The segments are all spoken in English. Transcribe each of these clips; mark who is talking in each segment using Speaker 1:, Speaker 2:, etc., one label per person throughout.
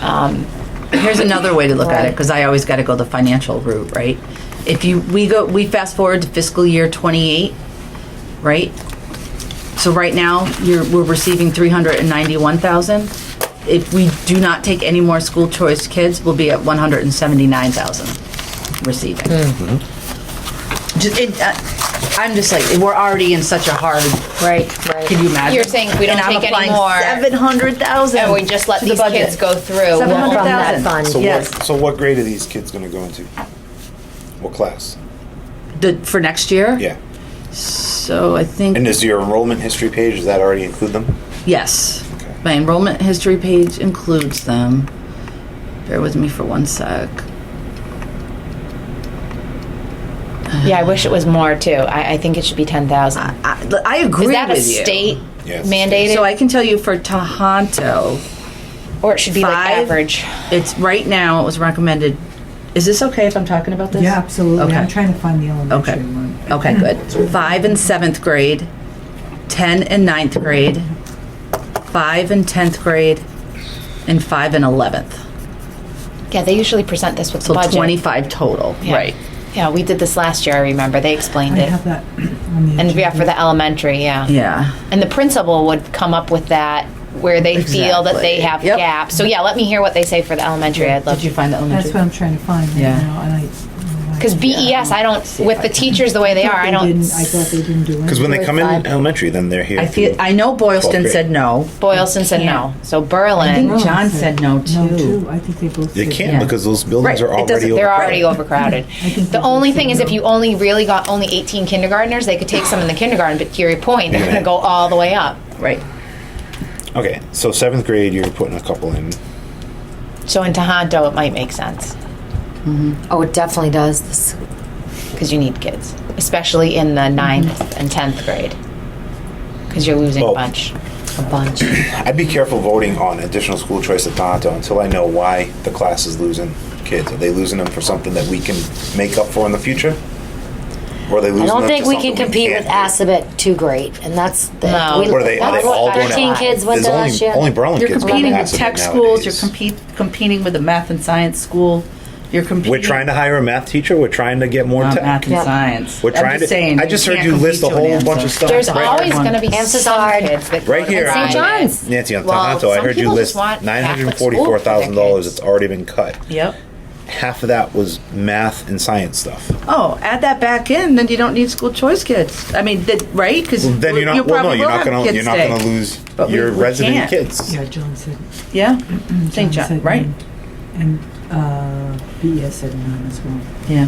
Speaker 1: Um, here's another way to look at it,
Speaker 2: Right.
Speaker 1: because I always got to go the financial route, right? If you, we go, we fast forward to fiscal year twenty-eight, right? So right now, you're, we're receiving three hundred and ninety-one thousand. If we do not take any more school choice kids, we'll be at one hundred and seventy-nine thousand receiving. Just, it, uh, I'm just like, we're already in such a hard,
Speaker 2: Right, right.
Speaker 1: can you imagine?
Speaker 3: You're saying if we don't take any more-
Speaker 1: Seven hundred thousand.
Speaker 3: And we just let these kids go through.
Speaker 1: Seven
Speaker 2: From
Speaker 1: hundred
Speaker 2: that fund,
Speaker 1: thousand,
Speaker 4: So
Speaker 1: yes.
Speaker 4: what, so what grade are these kids gonna go into? What class?
Speaker 1: The, for next year?
Speaker 4: Yeah.
Speaker 1: So I
Speaker 4: And
Speaker 1: think,
Speaker 4: is your enrollment history page, does that already include them?
Speaker 1: yes.
Speaker 4: Okay.
Speaker 1: My enrollment history page includes them. Bear with me for one sec.
Speaker 3: Yeah, I wish it was more too. I, I think it should be ten thousand.
Speaker 1: I, I agree
Speaker 3: Is
Speaker 1: with
Speaker 3: that a
Speaker 1: you.
Speaker 3: state
Speaker 4: Yeah, it's a
Speaker 3: mandated,
Speaker 1: So I can tell you for Tohoto,
Speaker 3: or it should be like
Speaker 1: five-
Speaker 3: average?
Speaker 1: it's right now, it was recommended, is this okay if I'm talking about this?
Speaker 5: Yeah, absolutely. I'm
Speaker 1: Okay.
Speaker 5: trying to find the
Speaker 1: Okay.
Speaker 5: elementary one.
Speaker 1: Okay, good. Five and seventh grade, 10 and ninth grade, five and 10th grade, and five and 11th.
Speaker 3: Yeah, they usually present this with the
Speaker 1: So
Speaker 3: budget.
Speaker 1: 25 total.
Speaker 3: Yeah. Yeah, we did this last year. I remember they
Speaker 5: I
Speaker 3: explained
Speaker 5: have
Speaker 3: it,
Speaker 5: that on the.
Speaker 3: and yeah, for
Speaker 5: agenda.
Speaker 3: the elementary, yeah.
Speaker 1: Yeah.
Speaker 3: And the principal would come up with that where they feel that they
Speaker 1: Exactly. Yep.
Speaker 3: have gaps. So yeah, let me hear what they say for the elementary. I'd love
Speaker 1: Did you find the
Speaker 5: That's
Speaker 1: elementary?
Speaker 5: what I'm trying to find right
Speaker 1: Yeah.
Speaker 5: now, and I.
Speaker 3: because BES, E I don't
Speaker 1: if
Speaker 3: with
Speaker 1: I
Speaker 3: the
Speaker 1: can-
Speaker 3: teachers the way they are. I
Speaker 5: thought
Speaker 3: don't.
Speaker 5: didn't- I thought they didn't do it.
Speaker 4: Cause when they come in
Speaker 3: Five.
Speaker 4: elementary, then they're here.
Speaker 1: I feel,
Speaker 4: through-
Speaker 1: I know Boylston
Speaker 4: Twelfth
Speaker 1: said
Speaker 4: grade.
Speaker 1: no.
Speaker 3: Boylston said no. So Berlin.
Speaker 1: I think John said no,
Speaker 5: Oh, No,
Speaker 1: too.
Speaker 5: too. I think they both.
Speaker 4: They
Speaker 5: said
Speaker 4: can't
Speaker 1: Yeah.
Speaker 4: because those buildings
Speaker 1: Right,
Speaker 4: are
Speaker 1: it doesn't- they're
Speaker 4: already.
Speaker 3: They're already
Speaker 4: overcrowded.
Speaker 3: overcrowded.
Speaker 5: think
Speaker 3: The
Speaker 5: they
Speaker 3: only
Speaker 5: do
Speaker 3: thing is, if you only really got only 18 kindergartners, they could take some in the kindergarten. But to your point, they're
Speaker 4: Yeah.
Speaker 3: going to go all the way up.
Speaker 1: Right.
Speaker 4: Okay, so seventh grade, you're putting a couple in.
Speaker 3: So in Tohoto, it might make sense
Speaker 4: Mm-hmm.
Speaker 2: Oh, it definitely does. This-
Speaker 3: because you need kids, especially in the ninth and 10th grade, because you're losing
Speaker 4: Mm-hmm. Oh.
Speaker 3: a bunch.
Speaker 2: A bunch.
Speaker 4: I'd be careful voting on additional school choice at Tohoto until I know why the class is losing kids. Are they losing them for something that we can make up for in the future? Or are they losing them
Speaker 2: I don't
Speaker 4: for
Speaker 2: think we
Speaker 4: something
Speaker 2: can compete with
Speaker 4: can't do?
Speaker 2: Assabet too great, and that's the.
Speaker 3: No.
Speaker 2: we-
Speaker 4: What are they, are
Speaker 2: that's
Speaker 4: they all going
Speaker 3: to-
Speaker 4: to?
Speaker 2: 13 kids went
Speaker 4: There's
Speaker 2: there
Speaker 4: only-
Speaker 2: last year.
Speaker 4: Only Berlin
Speaker 1: You're
Speaker 4: kids go to
Speaker 1: competing with
Speaker 4: Assabet
Speaker 1: tech schools, you're
Speaker 4: nowadays.
Speaker 1: compete, competing with a math and science school, you're competing.
Speaker 4: We're trying to hire a math teacher. We're trying to get more
Speaker 1: Not
Speaker 4: tech.
Speaker 1: math and
Speaker 2: Yeah.
Speaker 1: science.
Speaker 4: We're
Speaker 1: I'm
Speaker 4: trying
Speaker 1: just
Speaker 4: to.
Speaker 1: saying,
Speaker 4: I just heard
Speaker 1: can't
Speaker 4: you
Speaker 1: compete
Speaker 4: list a
Speaker 1: to an
Speaker 4: whole bunch of
Speaker 1: answer.
Speaker 4: stuff.
Speaker 3: There's
Speaker 4: right
Speaker 3: always
Speaker 1: Everyone.
Speaker 3: going to be
Speaker 2: And
Speaker 3: some
Speaker 2: Sazard.
Speaker 3: kids that
Speaker 4: Right
Speaker 3: go to
Speaker 4: here
Speaker 3: private.
Speaker 2: St. John's.
Speaker 4: Nancy on
Speaker 3: Well,
Speaker 4: Tohoto, I
Speaker 3: some
Speaker 4: heard you
Speaker 3: people
Speaker 4: list
Speaker 3: just want
Speaker 4: nine hundred
Speaker 3: Catholic
Speaker 4: and
Speaker 3: school for their
Speaker 4: forty-four thousand dollars
Speaker 3: kids.
Speaker 4: that's already been cut.
Speaker 1: Yep.
Speaker 4: Half of that was math and science stuff.
Speaker 1: Oh, add that back in, then you don't need school choice kids. I mean, that, right? Because
Speaker 4: Then you're not. Well, no, you're not gonna. You're not gonna lose
Speaker 1: But we-
Speaker 4: your
Speaker 1: we
Speaker 4: resident
Speaker 1: can't.
Speaker 4: kids.
Speaker 5: Yeah, John said.
Speaker 1: Yeah, St.
Speaker 5: John
Speaker 1: John,
Speaker 5: said
Speaker 1: right?
Speaker 5: no. And uh, BES said no as well.
Speaker 1: Yeah.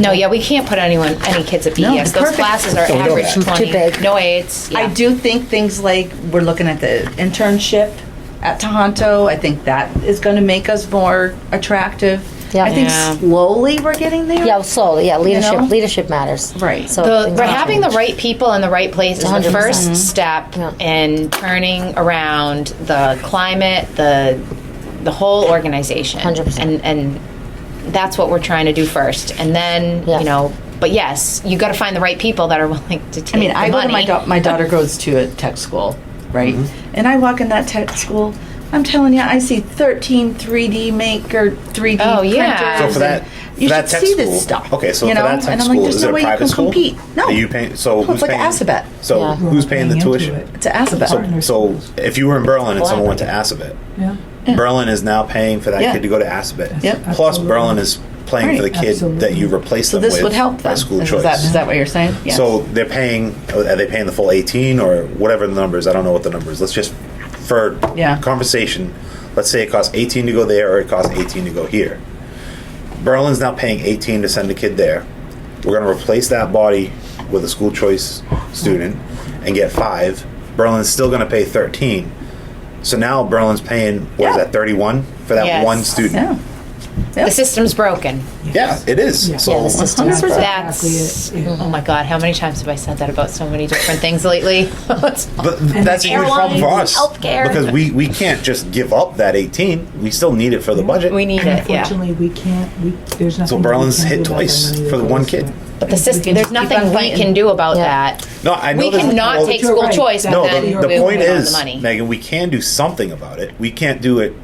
Speaker 3: No, yeah, we can't put anyone, any kids at BES.
Speaker 1: No,
Speaker 3: Those
Speaker 1: perfect.
Speaker 3: classes are
Speaker 4: So we don't
Speaker 3: average
Speaker 4: have that.
Speaker 3: 20.
Speaker 2: Too big.
Speaker 3: No aids. Yeah.
Speaker 1: I do think things like we're looking at the internship at Tohoto. I think that is going to make us more attractive.
Speaker 2: Yeah.
Speaker 1: I think
Speaker 3: Yeah.
Speaker 1: slowly we're getting there.
Speaker 2: Yeah, slowly. Yeah, leadership.
Speaker 1: know?
Speaker 2: Leadership matters.
Speaker 1: Right.
Speaker 2: So
Speaker 3: the,
Speaker 2: things
Speaker 3: but
Speaker 2: will
Speaker 3: having the
Speaker 2: change.
Speaker 3: right people in the right place is the
Speaker 2: 100%.
Speaker 3: first step
Speaker 2: Mm-hmm. Yeah.
Speaker 3: in turning around the climate, the the whole organization,
Speaker 2: 100%.
Speaker 3: and and that's what we're trying to do first, and then
Speaker 2: Yeah.
Speaker 3: you know. But yes, you got to find the right people that are willing to take.
Speaker 1: I mean,
Speaker 3: the
Speaker 1: I go to
Speaker 3: money.
Speaker 1: my da- my daughter goes to a tech school, right?
Speaker 4: Mm-hmm.
Speaker 1: And I walk in that tech school. I'm telling you, I see 13 3D maker, 3D
Speaker 3: Oh,
Speaker 1: printers.
Speaker 3: yeah. So
Speaker 4: So for that,
Speaker 1: you
Speaker 4: for that
Speaker 1: should
Speaker 4: tech
Speaker 1: see
Speaker 4: school,
Speaker 1: this stuff.
Speaker 4: Okay, so
Speaker 1: you
Speaker 4: for
Speaker 1: know?
Speaker 4: that tech
Speaker 1: and I'm
Speaker 4: school,
Speaker 1: like, there's
Speaker 4: is
Speaker 1: no
Speaker 4: it a
Speaker 1: way you
Speaker 4: private
Speaker 1: can
Speaker 4: school?
Speaker 1: compete. No,
Speaker 4: Are you paying? So
Speaker 1: No,
Speaker 4: who's
Speaker 1: it's like
Speaker 4: paying?
Speaker 1: Assabet.
Speaker 4: So
Speaker 2: Yeah.
Speaker 4: who's paying the
Speaker 5: Paying into
Speaker 4: tuition?
Speaker 5: it.
Speaker 1: it's a Assabet.
Speaker 4: So, so if you were in Berlin and someone went to Assabet,
Speaker 5: Yeah.
Speaker 4: Berlin is now paying for that
Speaker 1: Yeah.
Speaker 4: kid to go to Assabet.
Speaker 1: Yep.
Speaker 4: Plus,
Speaker 5: Absolutely.
Speaker 4: Berlin is playing for the
Speaker 5: Right.
Speaker 4: kid that you
Speaker 5: Absolutely.
Speaker 4: replace
Speaker 1: So
Speaker 4: them
Speaker 1: this
Speaker 4: with
Speaker 1: would help
Speaker 4: by
Speaker 1: them.
Speaker 4: school
Speaker 1: is,
Speaker 4: choice.
Speaker 1: That, is that what you're saying? Yes.
Speaker 4: So they're paying. Are they paying the full eighteen or whatever the number is? I don't know what the number is. Let's just for
Speaker 1: Yeah.
Speaker 4: conversation. Let's say it costs eighteen to go there, or it costs eighteen to go here. Berlin's now paying eighteen to send a kid there. We're going to replace that body with a school choice student and get five. Berlin's still going to pay thirteen. So now Berlin's paying what is
Speaker 1: Yeah.
Speaker 4: that thirty one for that
Speaker 3: Yes.
Speaker 4: one student?
Speaker 1: yeah.
Speaker 3: the system's broken.
Speaker 4: Yeah, it is.
Speaker 5: Yeah.
Speaker 4: So
Speaker 2: Yeah, the system
Speaker 1: 100%.
Speaker 2: is broken.
Speaker 3: That's
Speaker 5: Exactly, yeah.
Speaker 3: oh my god! How many times have I said that about so many different things lately?
Speaker 4: But th- that's a huge problem for
Speaker 3: airlines,
Speaker 4: us
Speaker 3: healthcare.
Speaker 4: because we, we can't just give up that 18. We still need it for the budget.
Speaker 3: we need it. Yeah.
Speaker 5: Unfortunately, we can't, we, there's nothing. we
Speaker 4: Berlin's
Speaker 5: can
Speaker 4: hit
Speaker 5: do about
Speaker 4: twice
Speaker 5: money that
Speaker 4: for the one
Speaker 5: goes
Speaker 4: kid.
Speaker 5: to it.
Speaker 3: But the system, there's
Speaker 1: keep on
Speaker 3: nothing we
Speaker 1: fighting.
Speaker 3: can do about
Speaker 2: Yeah.
Speaker 3: that.
Speaker 4: No, I know
Speaker 3: We
Speaker 4: there's-
Speaker 3: cannot
Speaker 4: well,
Speaker 3: take
Speaker 5: You're
Speaker 3: school
Speaker 5: right.
Speaker 3: choice, but
Speaker 5: No,
Speaker 3: then
Speaker 4: no,
Speaker 3: we're
Speaker 4: the, the
Speaker 3: moving
Speaker 4: point
Speaker 3: on the
Speaker 4: is,
Speaker 3: money.
Speaker 4: Megan, we can do something about it. We can't do it